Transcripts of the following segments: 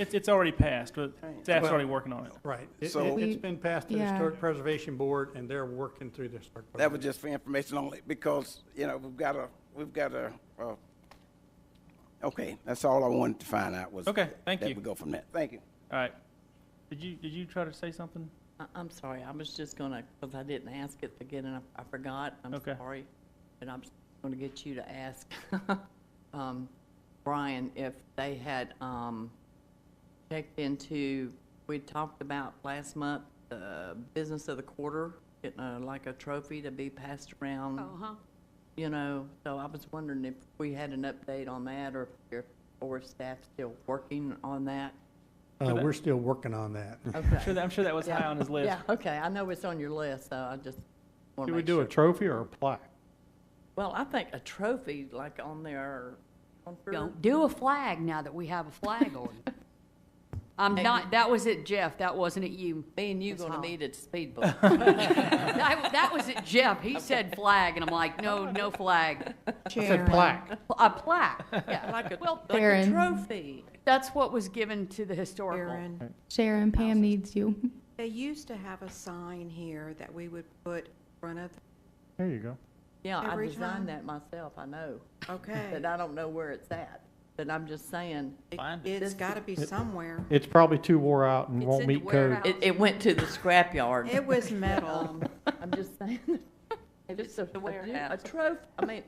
It's, it's already passed, but staff's Well- already working on it. Right. It, So- it- it's been passed to the Yeah. Historic Preservation Board, and they're working through the Historic. That was Preservation. just for information only, because, you know, we've got a, we've got a, uh, okay, that's all I wanted to find out was. Okay, thank you. That we go from that. Thank you. All right. Did you, did you try to say something? I- I'm sorry, I was just gonna, because I didn't ask it again, and I- I forgot, I'm Okay. sorry. And I'm just gonna get you to ask um, Brian if they had um, checked into, we talked about last month, the business of the quarter, getting a- like a trophy to be passed around, Uh-huh. you know, so I was wondering if we had an update on that, or if your, or if staff's still working on that? Uh, we're still working on that. I'm sure that, I'm sure that was high on his list. Yeah, okay, I know it's on your list, so I just want to Do we make do sure. a trophy or a plaque? Well, I think a trophy, like on their, on her, Don't do a flag now that we have a flag on. I'm not, that was it, Jeff, that wasn't it you. me and you Ms. gonna Holland. meet at Speedboat. That, that was it, Jeff, he said flag, and I'm like, no, no flag. I said plaque. A plaque, yeah. Like a, Well, like a Baron. trophy. That's what was given to the historical. Aaron, Sharon, Pam needs you. they used to have a sign here that we would put in front of, There you go. Yeah, I Every time. designed that myself, I know, okay. but I don't know where it's at. But I'm just saying, It- Find it. It's gotta be somewhere. It's probably too wore out and It's won't in the meet code. it, it went to the scrapyard. It was metal. um, I'm just saying. Just a, a warehouse. trophy, I mean,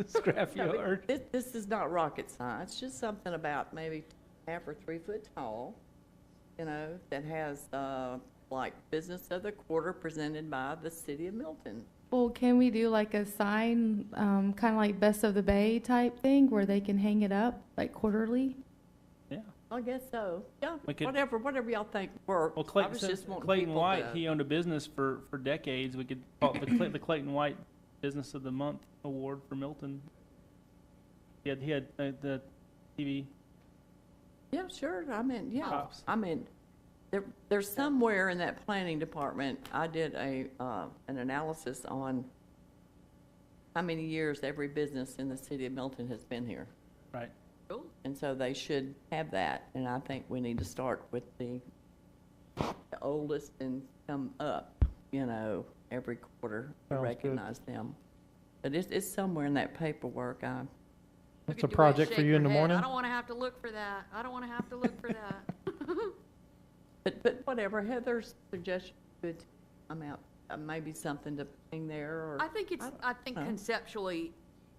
Scrapyard. This, this is not rocket science, just something about maybe half or three foot tall, you know, that has, uh, like, business of the quarter presented by the city of Milton. Well, can we do like a sign, um, kind of like Best of the Bay type thing where they can hang it up like quarterly? I guess so, yeah, We could- whatever, whatever y'all think works. Well, I Clayton, was since just wanting Clayton people White, to- he owned a business for, for decades. We could call it the, Clay, the Clayton White Business of the Month Award for Milton. He had, he had uh, the TV. Yeah, sure, I mean, yeah, Pops. I mean, there, there's somewhere in that planning department, I did a, uh, an analysis on how many years every business in the city of Milton has been here. Right. And so they should have that, and I think we need to start with the the oldest and come up, you know, every quarter to Sounds good. recognize them. But it's, it's somewhere in that paperwork, I, Look That's at a Dwight project for shake you in her the head. morning? I don't wanna have to look for that, I don't wanna have to look for that. but, but whatever, Heather's suggestion, good, I'm out, uh, maybe something to ping there or. I think it's, I think know. conceptually,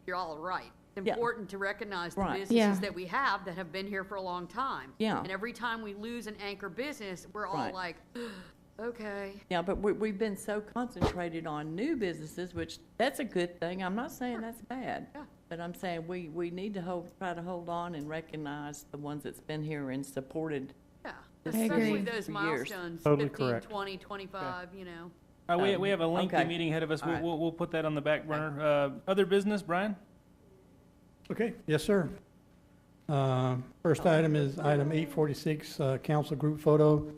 you're all right. It's Yeah. important to recognize the Right. Yeah. businesses that we have that have been here for a long time. Yeah. And every time we lose an anchor business, we're all Right. like, okay. Yeah, but we, we've been so concentrated on new businesses, which, that's a good thing, I'm not saying that's bad. Yeah. But I'm saying we, we need to hold, try to hold on and recognize the ones that's been here and supported. Yeah, I especially agree. those For years. milestones, Totally 15, correct. 20, 25, you know. Uh, we, Um, we have a lengthy okay. meeting ahead of us. All We'll, right. we'll, we'll put that on the back burner. Uh, other business, Brian? Okay, yes, sir. Um, First item is item 846, uh, council group photo.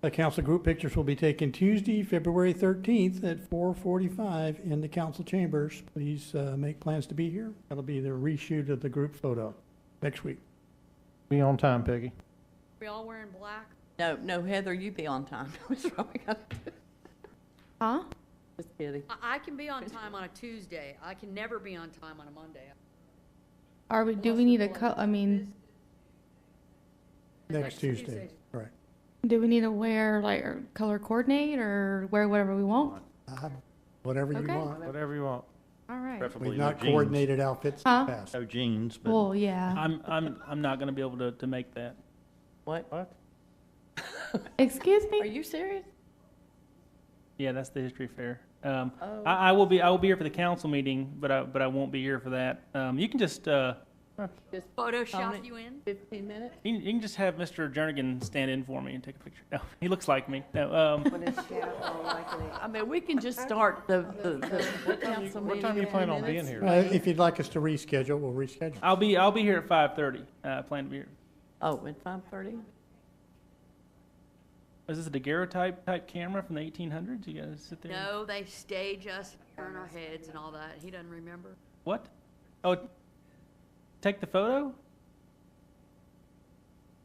The council group pictures will be taken Tuesday, February 13th at 4:45 in the council chambers. Please uh, make plans to be here. That'll be the reshoot of the group photo next week. Be on time, Peggy. We all wearing black. No, no, Heather, you be on time. What's wrong? Huh? Just kidding. I, I can be on time on a Tuesday. I can never be on time on a Monday. Are we, do we need a co- I mean, Next Tuesday, right. do we need to wear like or color coordinate or wear whatever we want? Uh, Whatever you Okay. want. Whatever you want. All right. We've Preferably no not jeans. coordinated outfits in the Huh? past. No jeans, but Well, yeah. I'm, I'm, I'm not going to be able to, to make that. What? What? Excuse Are me? you serious? Yeah, that's the history fair. Um, Oh. I, I will be, I will be here for the council meeting, but I, but I won't be here for that. Um, you can just, uh, Just Photoshop Dominic- you in? fifteen minutes? you, you can just have Mr. Jernigan stand in for me and take a picture. No, he looks like me. No, um, I mean, we can just start the, the, the council meeting. What time do you in plan on 10 being minutes. here? Uh, If you'd like us to reschedule, we'll reschedule. I'll be I'll be here at five thirty. Uh, I plan to be here. Oh, at five thirty? Is this a daguerreotype type camera from the eighteen hundreds? You guys sit there. and- No, they stage us, turn our heads and all that. He doesn't remember. What? Oh, take the photo.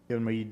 giving me